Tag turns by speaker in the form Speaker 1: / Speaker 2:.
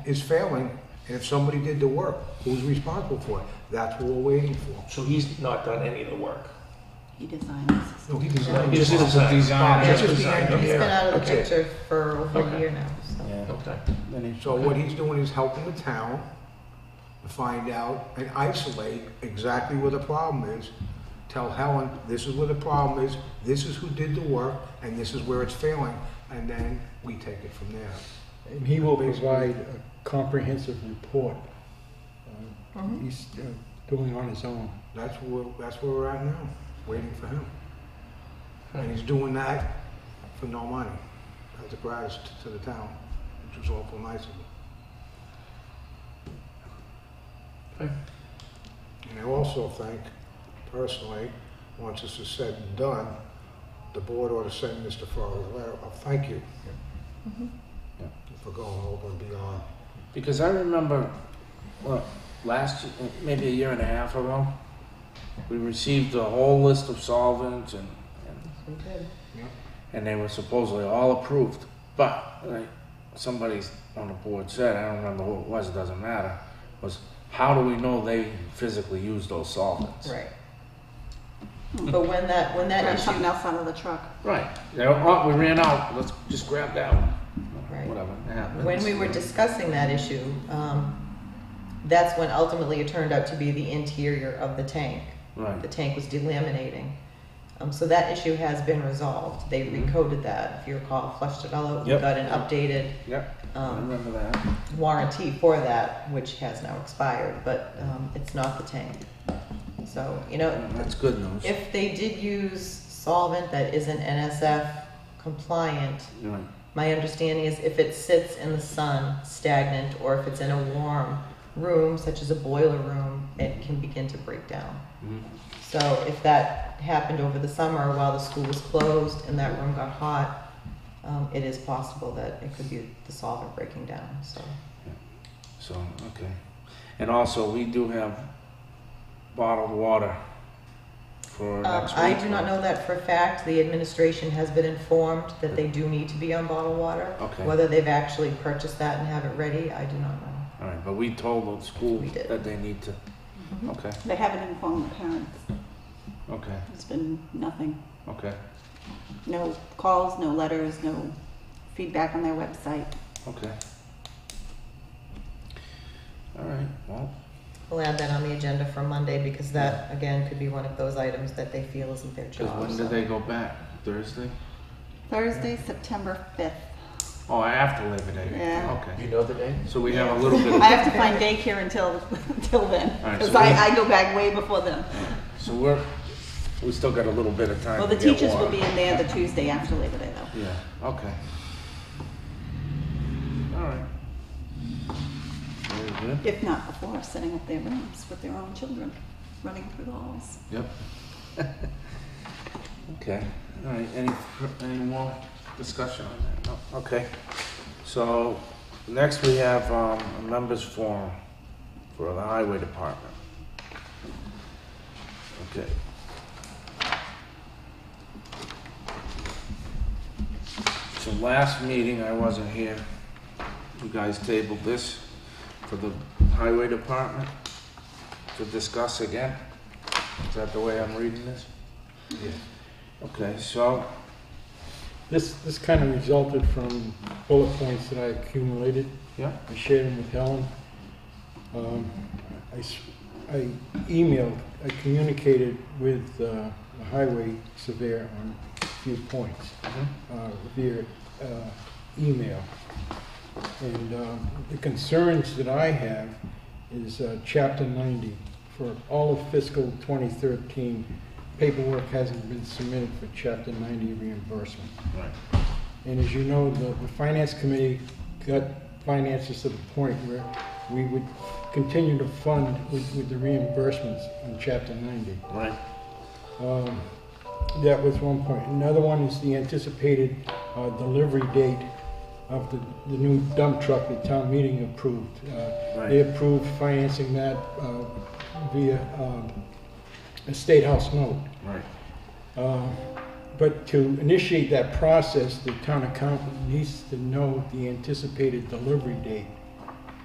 Speaker 1: is failing, and if somebody did the work, who's responsible for it? That's what we're waiting for.
Speaker 2: So he's not done any of the work.
Speaker 3: He designs.
Speaker 1: No, he
Speaker 2: He just did the design.
Speaker 1: Just
Speaker 2: Just
Speaker 1: design,
Speaker 2: design,
Speaker 1: okay.
Speaker 4: He's been out of the
Speaker 1: Okay.
Speaker 4: picture for over
Speaker 2: Okay.
Speaker 4: a year now, so.
Speaker 5: Yeah.
Speaker 2: Okay.
Speaker 5: Then he-
Speaker 1: So what he's doing is helping the town to find out and isolate exactly where the problem is. Tell Helen, this is where the problem is, this is who did the work, and this is where it's failing, and then we take it from there.
Speaker 6: And he will provide a comprehensive report. Uh,
Speaker 5: Mm-hmm. Hmm?
Speaker 4: Mhm.
Speaker 6: He's uh, doing on his own.
Speaker 1: That's where, that's where we're at now, waiting for him.
Speaker 5: Hmm.
Speaker 1: And he's doing that for no money, as a gratis to the town, which is awful nice of him.
Speaker 2: Okay.
Speaker 5: Hmm.
Speaker 1: And I also think, personally, once this is said and done, the board ought to send Mr. Farley a letter of thank you
Speaker 4: Mhm.
Speaker 5: Yeah.
Speaker 1: for going over and beyond.
Speaker 5: Because I remember, well, last, maybe a year and a half ago, we received a whole list of solvents and, and,
Speaker 4: We did.
Speaker 5: and they were supposedly all approved. But, like, somebody on the board said, I don't remember who it was, it doesn't matter, was how do we know they physically use those solvents?
Speaker 4: Right. But when that, when that
Speaker 3: Grab
Speaker 4: issue,
Speaker 3: something else out of the truck.
Speaker 5: Right. They're, oh, we ran out, let's just grab that one.
Speaker 4: Right.
Speaker 5: Whatever, it happens.
Speaker 4: when we were discussing that issue, um, that's when ultimately it turned out to be the interior of the tank.
Speaker 5: Right.
Speaker 4: The tank was delaminating. Um, so that issue has been resolved. They
Speaker 5: Mhm.
Speaker 4: recoded that, if you recall, flushed it all out. We
Speaker 5: Yep.
Speaker 4: got an updated,
Speaker 5: Yep, I
Speaker 4: um,
Speaker 5: remember that.
Speaker 4: warranty for that, which has now expired, but um, it's not the tank. So, you know,
Speaker 5: That's good news.
Speaker 4: if they did use solvent that isn't NSF compliant,
Speaker 5: Right.
Speaker 4: my understanding is if it sits in the sun stagnant or if it's in a warm room, such as a boiler room, it can begin to break down.
Speaker 5: Mhm.
Speaker 4: So if that happened over the summer while the school was closed and that room got hot, um, it is possible that it could be the solvent breaking down, so.
Speaker 5: So, okay. And also, we do have bottled water for
Speaker 4: Um,
Speaker 5: next week.
Speaker 4: I do not know that for a fact. The administration has been informed that they do need to be on bottled water.
Speaker 5: Okay.
Speaker 4: Whether they've actually purchased that and have it ready, I do not know.
Speaker 5: All right, but we told the school
Speaker 4: We did.
Speaker 5: that they need to, okay,
Speaker 3: They haven't informed the parents.
Speaker 5: okay,
Speaker 3: There's been nothing.
Speaker 5: okay,
Speaker 3: No calls, no letters, no feedback on their website.
Speaker 5: okay. All right, well,
Speaker 4: We'll add that on the agenda for Monday because that, again, could be one of those items that they feel isn't their
Speaker 5: because
Speaker 4: job.
Speaker 5: when
Speaker 4: so.
Speaker 5: do they go back? Thursday?
Speaker 3: Thursday, September 5th.
Speaker 5: Oh, after Labor Day?
Speaker 3: Yeah.
Speaker 2: You
Speaker 5: Okay,
Speaker 2: know the day?
Speaker 5: so we have a little bit
Speaker 3: I
Speaker 5: of,
Speaker 3: have to find daycare until, until then.
Speaker 5: All right,
Speaker 3: Because
Speaker 5: so we-
Speaker 3: I, I go back way before them.
Speaker 5: so we're, we still got a little bit of time
Speaker 3: Well,
Speaker 5: to
Speaker 3: the
Speaker 5: get
Speaker 3: teachers will
Speaker 5: water.
Speaker 3: be in there the Tuesday after Labor Day though.
Speaker 5: Yeah, okay. All right. Very good.
Speaker 3: If not before, setting up their rooms with their own children, running through the halls.
Speaker 5: Yep. Okay, all right, any, fr- any more discussion on that? No, okay. So, next we have, um, a members forum for the highway department. Okay. So last meeting, I wasn't here, you guys tabled this for the highway department to discuss again. Is that the way I'm reading this?
Speaker 1: Yeah.
Speaker 5: Okay, so,
Speaker 6: This, this kind of resulted from bullet points that I accumulated.
Speaker 5: Yeah.
Speaker 6: I shared them with Helen. Um, I, s- I emailed, I communicated with uh, the highway surveyor on a few points
Speaker 5: mm-hmm.
Speaker 6: uh, via uh, email. And um, the concerns that I have is uh, Chapter 90. For all of fiscal 2013, paperwork hasn't been submitted for Chapter 90 reimbursement.
Speaker 5: Right.
Speaker 6: And as you know, the the Finance Committee got finances to the point where we would continue to fund with with the reimbursements in Chapter 90.
Speaker 5: right,
Speaker 6: Um, That was one point. Another one is the anticipated uh, delivery date of the, the new dump truck that town meeting approved. Uh, They
Speaker 5: Right.
Speaker 6: approved financing that uh, via um, a state house note.
Speaker 5: right,
Speaker 6: Uh, But to initiate that process, the town accountant needs to know the anticipated delivery date